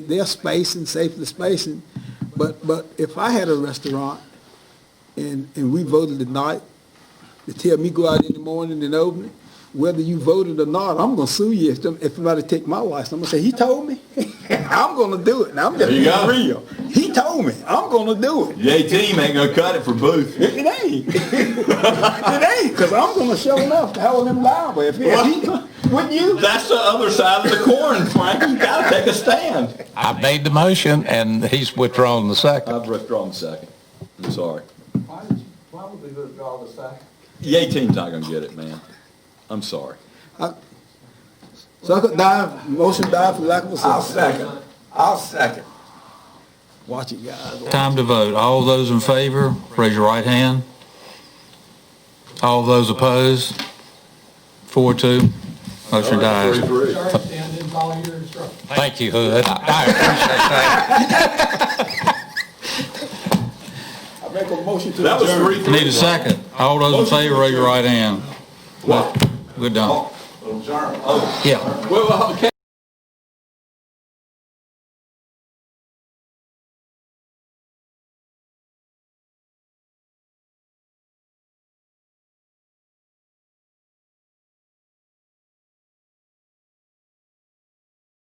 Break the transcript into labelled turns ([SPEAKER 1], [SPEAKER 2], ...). [SPEAKER 1] their space and safely spacing. But, but if I had a restaurant and, and we voted tonight to tell me go out in the morning and open it, whether you voted or not, I'm gonna sue you if, them- if somebody take my license. I'm gonna say, he told me. I'm gonna do it. Now, I'm just
[SPEAKER 2] There you
[SPEAKER 1] being
[SPEAKER 2] go.
[SPEAKER 1] real. He told me. I'm gonna do it.
[SPEAKER 2] The A team ain't gonna cut it for Booth.
[SPEAKER 1] It ain't. It ain't, cause I'm gonna show enough to hold him liable if he, if he- wouldn't you?
[SPEAKER 2] That's the other side of the coin, Frank. You gotta take a stand.
[SPEAKER 3] I made the motion, and he's withdrawn the second.
[SPEAKER 2] I've withdrawn the second. I'm sorry.
[SPEAKER 4] Why did you, why would we withdraw the second?
[SPEAKER 2] The A team's not gonna get it, man. I'm sorry.
[SPEAKER 1] So I could die, motion die for lack of a
[SPEAKER 4] I'll
[SPEAKER 1] second.
[SPEAKER 4] second, I'll second.
[SPEAKER 1] Watch it, guys.
[SPEAKER 3] Time to vote. All those in favor, raise your right hand. All those opposed? Four, two. Motion dies.
[SPEAKER 4] Sir, stand and follow your instructions.
[SPEAKER 3] Thank you, Hood. I appreciate that.
[SPEAKER 1] I make a motion to
[SPEAKER 2] That was
[SPEAKER 1] adjourn.
[SPEAKER 2] three,
[SPEAKER 3] Need a second. All those in favor, raise your right hand.
[SPEAKER 2] What?
[SPEAKER 3] We're done.
[SPEAKER 2] Oh,
[SPEAKER 3] Yeah.
[SPEAKER 2] Well, okay.